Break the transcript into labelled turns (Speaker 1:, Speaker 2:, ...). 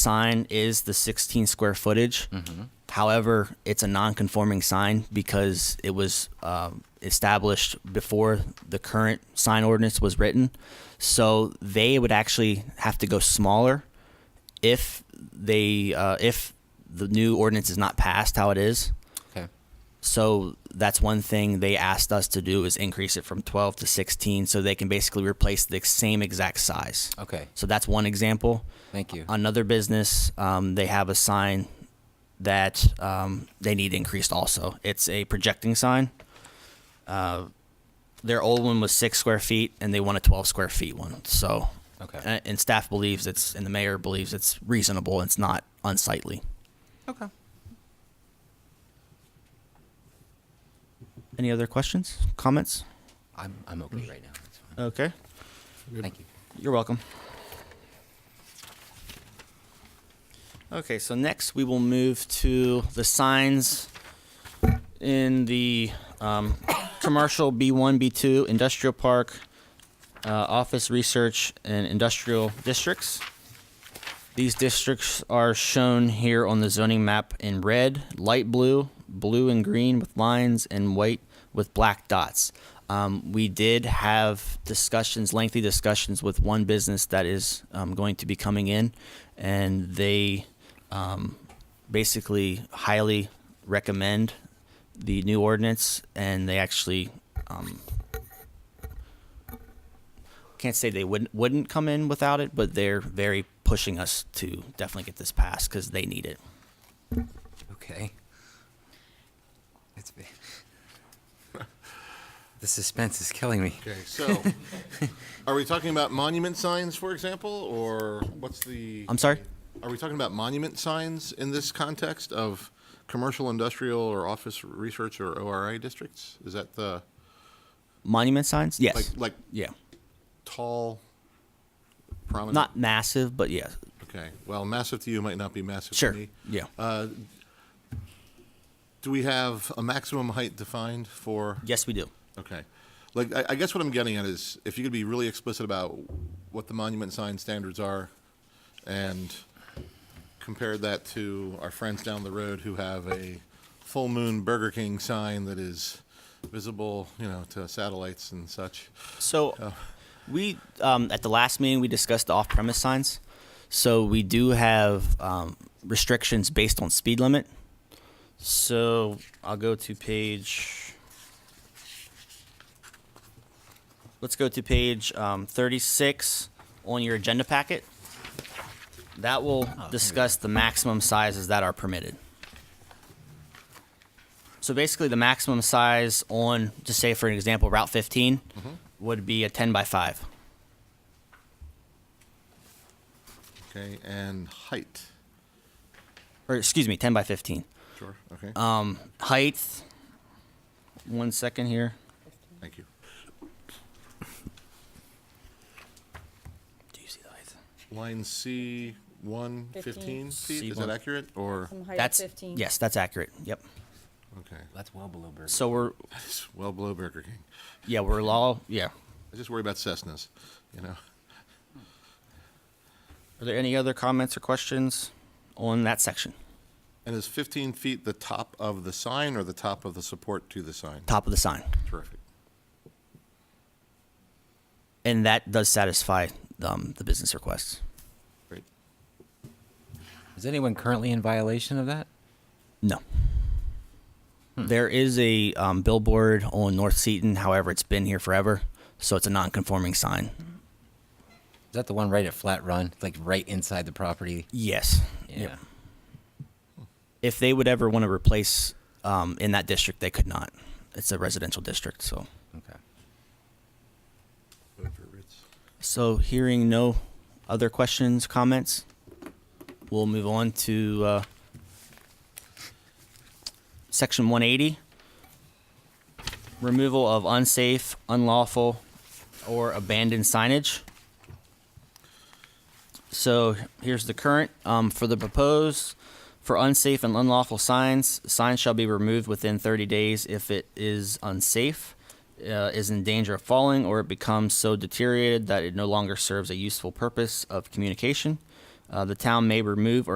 Speaker 1: sign is the 16 square footage. However, it's a non-conforming sign because it was um, established before the current sign ordinance was written. So they would actually have to go smaller if they uh, if the new ordinance is not passed how it is.
Speaker 2: Okay.
Speaker 1: So that's one thing they asked us to do is increase it from 12 to 16 so they can basically replace the same exact size.
Speaker 2: Okay.
Speaker 1: So that's one example.
Speaker 2: Thank you.
Speaker 1: Another business, um, they have a sign that um, they need increased also. It's a projecting sign. Uh, their old one was six square feet and they want a 12 square feet one. So, uh,
Speaker 2: Okay.
Speaker 1: and, and staff believes it's, and the mayor believes it's reasonable and it's not unsightly.
Speaker 2: Okay.
Speaker 1: Any other questions, comments?
Speaker 2: I'm, I'm okay right now. It's fine.
Speaker 1: Okay.
Speaker 2: Thank you.
Speaker 1: You're welcome. Okay, so next we will move to the signs in the um, commercial B1, B2, industrial park, uh, office research, and industrial districts. These districts are shown here on the zoning map in red, light blue, blue and green with lines, and white with black dots. Um, we did have discussions, lengthy discussions with one business that is um, going to be coming in, and they um, basically highly recommend the new ordinance, and they actually um, can't say they wouldn't wouldn't come in without it, but they're very pushing us to definitely get this passed because they need it.
Speaker 2: Okay. It's been. the suspense is killing me.
Speaker 3: Okay, so, are we talking about monument signs, for example, or what's the?
Speaker 1: I'm sorry.
Speaker 3: Are we talking about monument signs in this context of commercial, industrial, or office research or ORI districts? Is that the,
Speaker 1: Monument signs, yes,
Speaker 3: like, like
Speaker 1: yeah,
Speaker 3: tall, prominent?
Speaker 1: not massive, but yeah,
Speaker 3: Okay, well, massive to you might not be massive to
Speaker 1: sure,
Speaker 3: me. Uh,
Speaker 1: yeah,
Speaker 3: Do we have a maximum height defined for?
Speaker 1: yes, we do.
Speaker 3: Okay. Like, I, I guess what I'm getting at is if you could be really explicit about what the monument sign standards are and compare that to our friends down the road who have a full moon Burger King sign that is visible, you know, to satellites and such.
Speaker 1: So,
Speaker 3: uh,
Speaker 1: we um, at the last meeting we discussed the off-premise signs. So we do have um, restrictions based on speed limit. So I'll go to page. Let's go to page um, 36 on your agenda packet. That will discuss the maximum sizes that are permitted. So basically, the maximum size on, just say for an example, Route 15 would be a 10 by 5.
Speaker 3: Okay. And height.
Speaker 1: Or excuse me, 10 by 15.
Speaker 3: Sure. Okay.
Speaker 1: Um, height, one second here.
Speaker 3: Thank you.
Speaker 1: Do you see the height?
Speaker 3: Line C. One fifteen
Speaker 4: Fifteen.
Speaker 3: feet, is
Speaker 1: C1.
Speaker 3: that accurate, or,
Speaker 4: Some height
Speaker 1: That's,
Speaker 4: of 15.
Speaker 1: yes, that's accurate. Yep.
Speaker 3: okay,
Speaker 2: That's well below Burger.
Speaker 1: So we're,
Speaker 3: it's well below Burger King.
Speaker 1: yeah, we're law, yeah.
Speaker 3: I just worry about Cessnas, you know?
Speaker 1: Are there any other comments or questions on that section?
Speaker 3: And is 15 feet the top of the sign or the top of the support to the sign?
Speaker 1: Top of the sign.
Speaker 3: Terrific.
Speaker 1: And that does satisfy um, the business requests.
Speaker 3: Great.
Speaker 2: Is anyone currently in violation of that?
Speaker 1: No. There is a um, billboard on North Seaton. However, it's been here forever, so it's a non-conforming sign.
Speaker 2: Is that the one right at Flat Run, like right inside the property?
Speaker 1: Yes.
Speaker 2: Yeah.
Speaker 1: Yep. If they would ever want to replace um, in that district, they could not. It's a residential district, so.
Speaker 2: Okay.
Speaker 3: Vote for Ritz.
Speaker 1: So, hearing no other questions, comments, we'll move on to uh, section 180 removal of unsafe, unlawful, or abandoned signage. So, here's the current um, for the proposed. For unsafe and unlawful signs, signs shall be removed within 30 days if it is unsafe, uh, is in danger of falling, or it becomes so deteriorated that it no longer serves a useful purpose of communication. Uh, the town may remove or